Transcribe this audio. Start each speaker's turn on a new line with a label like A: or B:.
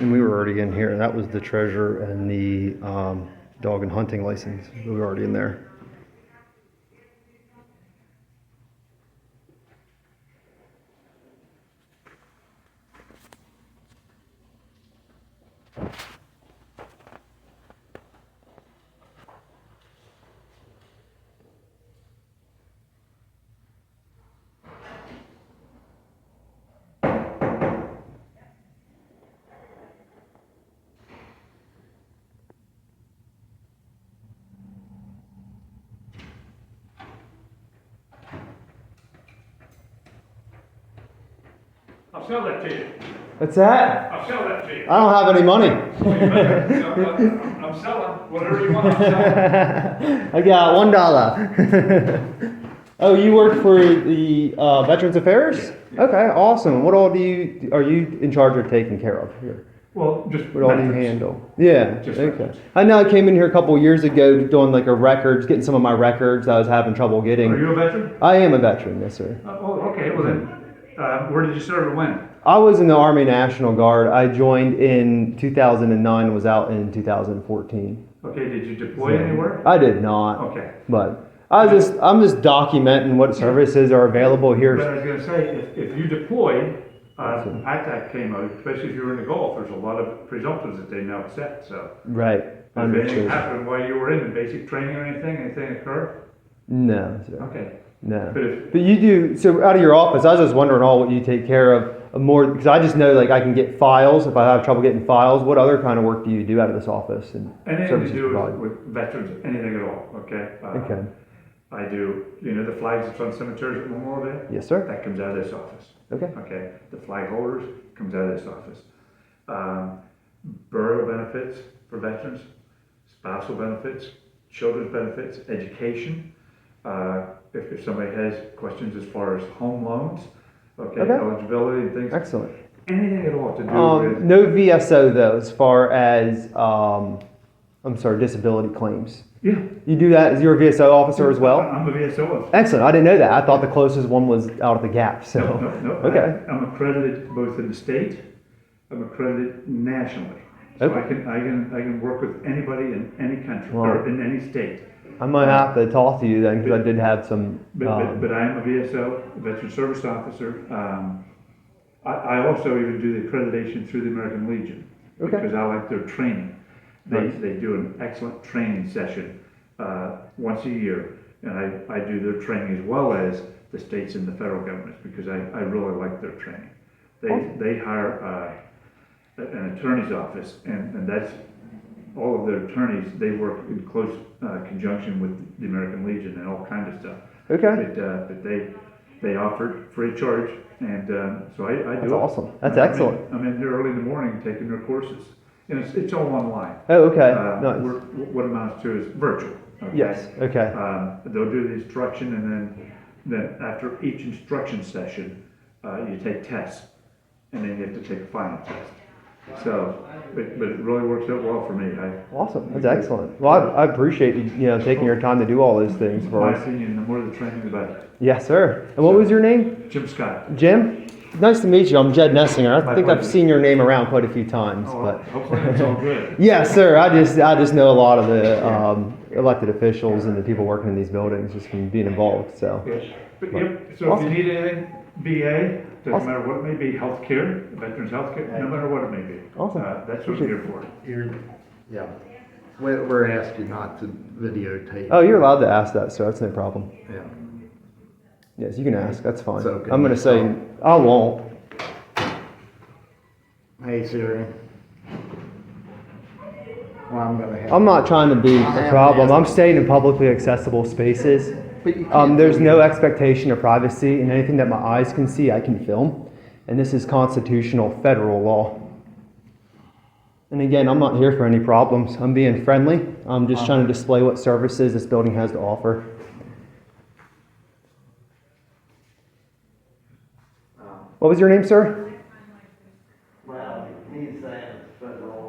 A: And we were already in here. That was the treasure and the um, dog and hunting license. We were already in there.
B: I'll sell that to you.
A: What's that?
B: I'll sell that to you.
A: I don't have any money.
B: I'm I'm selling whatever you want. I'm selling.
A: I got one dollar. oh, you work for the uh, Veterans Affairs? Okay, awesome. What all do you are you in charge of taking care of here?
B: Well, just.
A: What all do you
B: metrics.
A: handle? Yeah.
B: Just
A: okay.
B: records.
A: I know I came in here a couple years ago doing like a records, getting some of my records I was having trouble
B: Are
A: getting.
B: you a veteran?
A: I am a veteran, yes sir.
B: Uh, Oh, okay, well then, uh, where did you serve and when?
A: I was in the Army National Guard. I joined in 2009. Was out in 2014.
B: Okay, did you deploy anywhere?
A: I did not.
B: Okay.
A: But I was just I'm just documenting what services are available
B: But I
A: here.
B: was gonna say, if, if you deployed, uh, ITAC came out, especially if you were in the Gulf, there's a lot of presumptions that they now accept, so.
A: Right.
B: If anything
A: Understood.
B: happened while you were in basic training or anything, anything occurred?
A: No, sir.
B: Okay,
A: No.
B: but if,
A: But you do so out of your office. I was just wondering all what you take care of more because I just know like I can get files if I have trouble getting files. What other kind of work do you do out of this office and
B: anything to
A: services
B: do with-
A: provided?
B: with veterans, anything at all, okay? Uh,
A: Okay.
B: I do, you know, the flags that's on cemeteries at Memorial Day?
A: Yes, sir.
B: That comes out of this office.
A: Okay.
B: Okay, the flag holders comes out of this office. Um, burial benefits for veterans, spousal benefits, children's benefits, education. Uh, if, if somebody has questions as far as home loans, okay,
A: Okay.
B: eligibility and things,
A: Excellent.
B: anything at all to do
A: Um,
B: with,
A: no VSO though, as far as um, I'm sorry, disability claims.
B: yeah.
A: You do that as your VSO officer as well.
B: I'm a VSO.
A: Excellent. I didn't know that. I thought the closest one was out of the gap. So,
B: No, no, no.
A: okay.
B: I- I'm accredited both in the state, I'm accredited nationally. So I
A: Okay.
B: can, I can, I can work with anybody in any country
A: Wow.
B: or in any state.
A: I might have to talk to you then because I did have some.
B: But, but,
A: Um,
B: but I am a VSO, Veteran Service Officer. Um, I, I also even do the accreditation through the American Legion.
A: Okay.
B: Because I like their training. They,
A: Right.
B: they do an excellent training session, uh, once a year. And I, I do their training as well as the states and the federal governments, because I, I really like their training. They,
A: Awesome.
B: they hire, uh, an attorney's office and, and that's, all of their attorneys, they work in close, uh, conjunction with the American Legion and all kinds of stuff.
A: okay.
B: But, uh, but they, they offered free of charge, and, um, so I, I do it.
A: That's awesome. That's
B: I'm in-
A: excellent.
B: I'm in here early in the morning taking their courses, and it's, it's all online.
A: Oh, okay.
B: Uh,
A: nice.
B: we're- What amounts to is virtual. okay?
A: Yes. Okay.
B: Um, they'll do the instruction, and then, then after each instruction session, uh, you take tests, and then you have to take a final test. So, but, but it really works out well for me, I,
A: Awesome. That's excellent. Well, I, I appreciate you, you know taking your time to do all those things for
B: my
A: us.
B: opinion, the more the training, the better.
A: Yes, sir. And what was your name?
B: Jim Scott.
A: Jim. Nice to meet you. I'm Jed Nessinger. I
B: My
A: think I've
B: pleasure.
A: seen your name around quite a few times,
B: Oh,
A: but.
B: Hopefully it's all good.
A: Yes, sir. I just I just know a lot of the um, elected officials and the people working in these buildings just from being involved. So.
B: Yes, but yep, so if you
A: Awesome.
B: need anything, VA, doesn't
A: Awesome.
B: matter what it may be, healthcare, veterans healthcare, no matter what it may be.
A: Awesome.
B: Uh, That's what I'm here for.
C: You're, yeah, we, we're asking not to videotape.
A: Oh, you're allowed to ask that, sir. That's no problem.
C: Yeah.
A: Yes, you can ask. That's fine.
C: So can
A: I'm gonna
C: you
A: say I won't.
C: Hey Siri. Well, I'm gonna have.
A: I'm not trying to be
C: I
A: a
C: am
A: problem.
C: asking.
A: I'm staying in publicly accessible spaces.
C: But you can't
A: Um, there's
C: do
A: no expectation of privacy, and anything that my eyes can see, I can film. And this is constitutional federal law. And again, I'm not here for any problems. I'm being friendly. I'm just trying to display what services this building has to offer.
C: Um,
A: What was your name, sir?
C: Well, he's saying federal uh,